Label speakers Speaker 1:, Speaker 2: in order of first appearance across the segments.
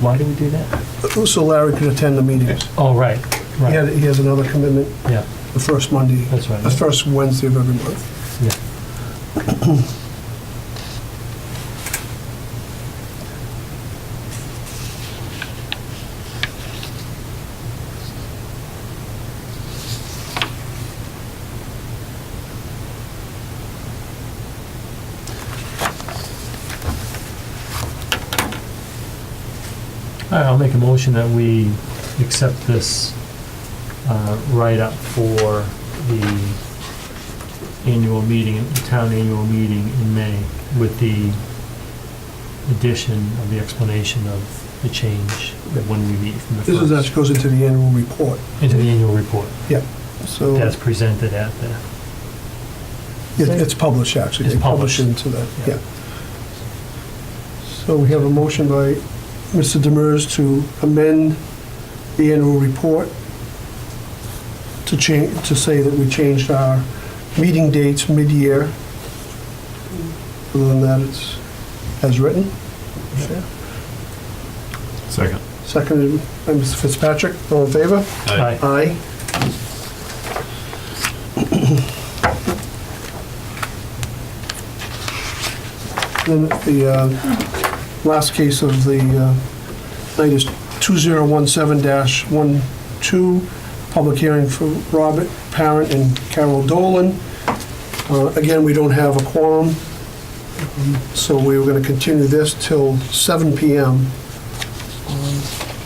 Speaker 1: Why do we do that?
Speaker 2: So Larry could attend the meetings.
Speaker 1: Oh, right,
Speaker 2: He had-
Speaker 1: right,
Speaker 2: he has another commitment
Speaker 1: yeah,
Speaker 2: the first Monday,
Speaker 1: That's right.
Speaker 2: the first Wednesday of every month.
Speaker 1: yeah. All right, I'll make a motion that we accept this uh, write-up for the annual meeting, the town annual meeting in May with the addition of the explanation of the change that when we meet from the
Speaker 2: This is,
Speaker 1: first
Speaker 2: actually goes into the annual report,
Speaker 1: into the annual report
Speaker 2: so
Speaker 1: that's presented at the,
Speaker 2: it- it's published, actually.
Speaker 1: It's
Speaker 2: They publish it into that,
Speaker 1: Yeah.
Speaker 2: yeah. So we have a motion by Mr. Demers to amend the annual report to change, to say that we changed our meeting dates mid-year. Other than that, it's as written. Yeah.
Speaker 3: Second.
Speaker 2: Seconded by Mr. Fitzpatrick. All in favor?
Speaker 1: Aye.
Speaker 2: Aye. Then the uh, last case of the uh, night is 2017-12, public hearing for Robert Parent and Carol Dolan. Uh, Again, we don't have a quorum, um, so we were going to continue this till 7 PM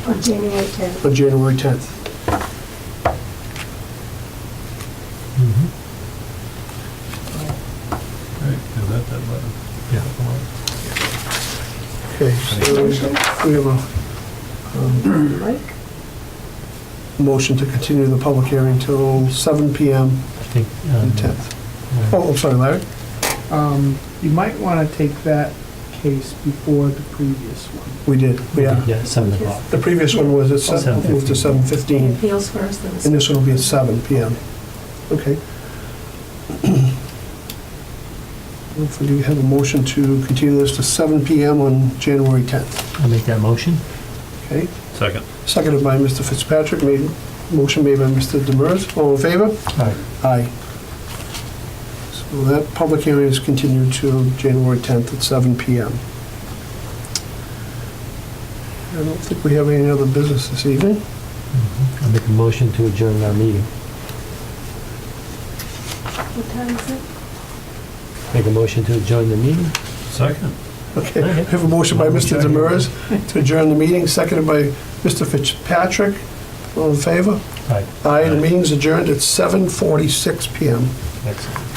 Speaker 4: On January 10th.
Speaker 2: on January 10th.
Speaker 1: Mhm.
Speaker 3: Is that that button?
Speaker 1: yeah.
Speaker 2: Okay, so we have a
Speaker 4: Mike?
Speaker 2: motion to continue the public hearing till 7 PM
Speaker 1: I think,
Speaker 2: on
Speaker 1: um, uh,
Speaker 2: the 10th.
Speaker 1: yeah.
Speaker 2: Oh, I'm sorry, Larry.
Speaker 5: Um, you might want to take that case before the previous one.
Speaker 2: We did, yeah.
Speaker 1: yeah, seven o'clock.
Speaker 2: The previous one was at 7,
Speaker 1: 7:15.
Speaker 2: moved to 7:15,
Speaker 4: Appeals first, then the
Speaker 2: and this one will be at 7 PM. Okay. Hopefully we have a motion to continue this to 7 PM on January 10th,
Speaker 1: I'll make that motion.
Speaker 2: okay?
Speaker 3: Second.
Speaker 2: Seconded by Mr. Fitzpatrick, made, motion made by Mr. Demers. All in favor?
Speaker 1: All right,
Speaker 2: Aye. So that public hearing is continued to January 10th at 7 PM. I don't think we have any other business this evening.
Speaker 1: I'll make a motion to adjourn our meeting.
Speaker 4: What time is it?
Speaker 1: Make a motion to adjourn the meeting?
Speaker 3: Second.
Speaker 2: Okay, we have a motion by Mr. Demers to adjourn the meeting, seconded by Mr. Fitzpatrick. All in favor?
Speaker 1: All right,
Speaker 2: Aye, the meeting's adjourned at 7:46 PM.
Speaker 1: excellent.